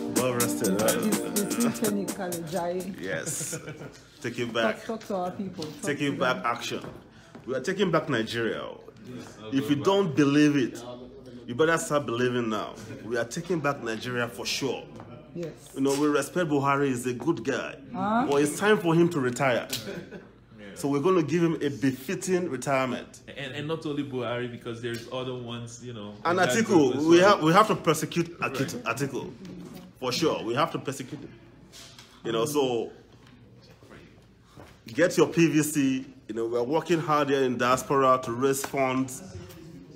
listed. It's, Right? it's Tiffany Kalejai. Yes. Take it Talk, back. talk to our people. Talk to Taking them. back action. We are taking back Nigeria. If you don't believe it, you better start believing now. We are taking back Nigeria for sure. Yes. You know, we respect Buhari, he's a good guy. But it's time for him to retire. So we're going to give him a befitting retirement. And, and not only Buhari because there's other ones, you know. And in that group as Atiku, we well. have we have to persecute Akit- Atiku for sure. We have to persecute him. You know, so get your PVC. You know, we're working hard here in diaspora to raise funds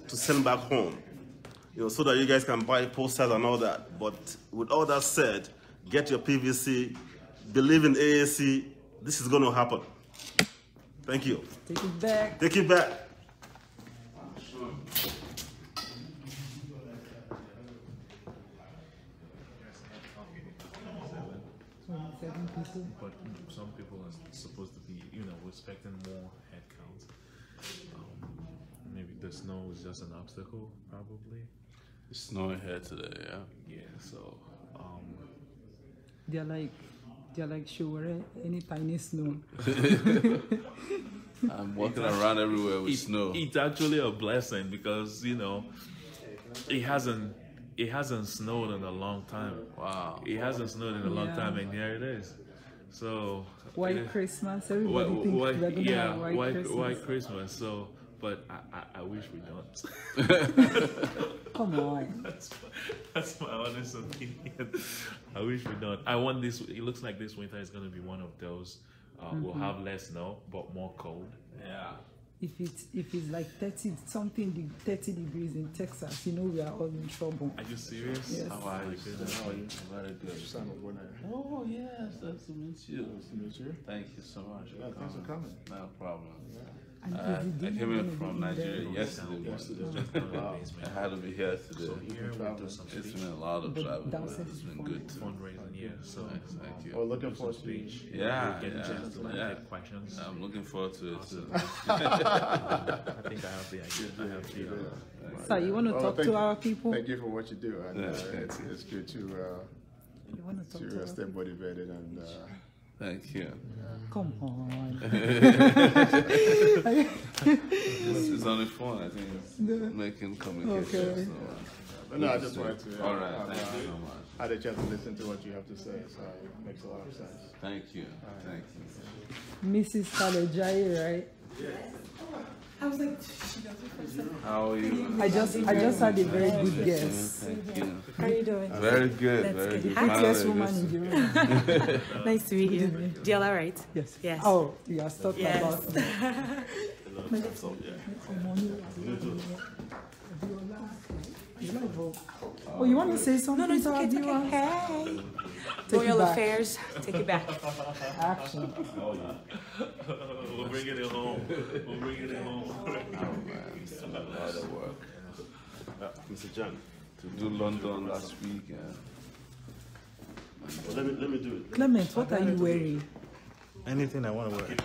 to send back home. You know, so that you guys can buy posters and all that. But with all that said, get your PVC. Believe in AAC. This is going to happen. Thank you. Take it back. Take it back. Twenty-seven people. But some people are supposed to be, you know, we're expecting more headcount. Um, maybe the snow is just an obstacle, probably. It's snowing here today, yeah. Yeah. So, um, They're like, they're like sure any tiny snow. I'm walking around everywhere with it- snow. It's actually a blessing because you know, it hasn't it hasn't snowed in a long time. Wow. It hasn't snowed in a long Yeah. time, and here it is. So eh, White yeah. Christmas. Why, Everybody thinks why, we're gonna yeah, have why, white why Christmas. Christmas? So, but I, I, I wish we don't. Come on. that's, my- that's my honest opinion. I wish we don't. I want this. It looks like this winter is gonna be one of those. Uh, We'll have less snow, but more cold. Yeah. If it's if it's like thirty something de- thirty degrees in Texas, you know we are all in trouble. Are you serious? Yes. How are you? How are you? Very good. Oh, yes, nice to meet you. Nice to meet you. Thank you so much. Yeah, thanks for coming. No problem. And if Uh, you I didn't came wanna in be from there- Nigeria yesterday. Wow. I had to be here today. Here we do some It's been a lot of But travel. that was but It's been good. fundraising. Yeah. So Thanks, Thank We're you. looking forward to it. Yeah, we'll get a chance to yeah, like, yeah. take questions. I'm looking forward to it too. I think I have the idea. I have the. Uh, So you want to Well, talk Oh, thank to you. our people? Thank you for what you do. And, uh, Yeah, thank it's, it's good to, You want to uh, talk to to uh, our stay motivated and, uh, Thank you. Come on. This is on the phone. I think it's making communication. Okay. So, but no, I just wanted to, uh, All right. have, Thank you uh, so much. had a chance to listen to what you have to say, so it makes a lot of sense. Thank you. Thank you. Mrs. Kalejai, right? I was like, she doesn't herself. How are you? I just I just had a very good guess. Thank you. How are you doing? Very good. very Yes, good. Finally, woman in this- Europe. Nice to meet you. DLR, right? Yes. Yes. Oh, you are talking Yes. about. So, yeah. Oh, you want to say something? No, no, it's to okay. It's Adira? okay. Hey. Take it Royal back. affairs. Take it back. Action. we're bringing it home. We're bringing it home. It's a lot of work. Mr. Jan, To do London last week. Yeah. well, let me let me do it. Clement, what are you wearing? Anything I want to wear. I'll keep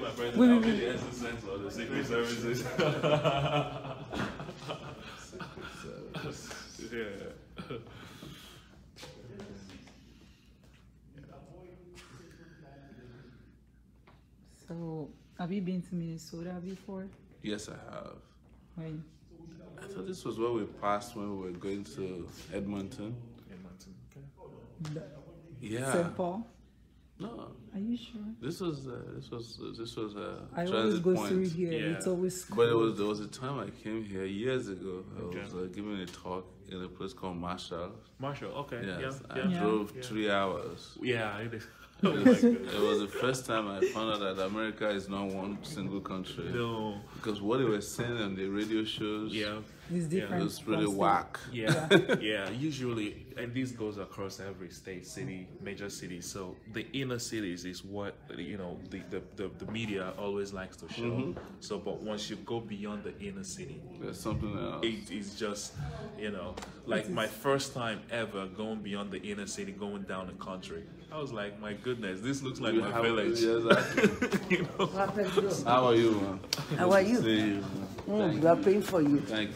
my Wait, present. I'll wait, be the assistant or the secret services. yeah. So, have you been to Minnesota before? Yes, I have. When? I thought this was where we passed when we were going to Edmonton. Yeah. St. Paul? No, Are you sure? this was uh, this was this was a I always transit go point. through here. Yeah. It's always cool. But it was there was a time I came here years ago. I was uh, giving a talk in a place called Marshall. Marshall, okay. Yes, yeah. I Yeah. drove Yeah. three hours. Yeah, it is. It was, it was the first time I found out that America is not one single country. no. Because what they were saying on the radio shows Yeah. it's it different. was really from state. whack. Yeah. Yeah. Usually, and this goes across every state, city, major city. So the inner cities is what, you know, the, the, the, the media always likes to show. So, but once you go beyond the inner city, There's something else. it is just you know like my first time ever going beyond the inner city going down the country i was like my goodness this looks like You my have- village yeah, exactly. you know How are you, man? How are See you? you. man. Mm, we are praying for you. Thank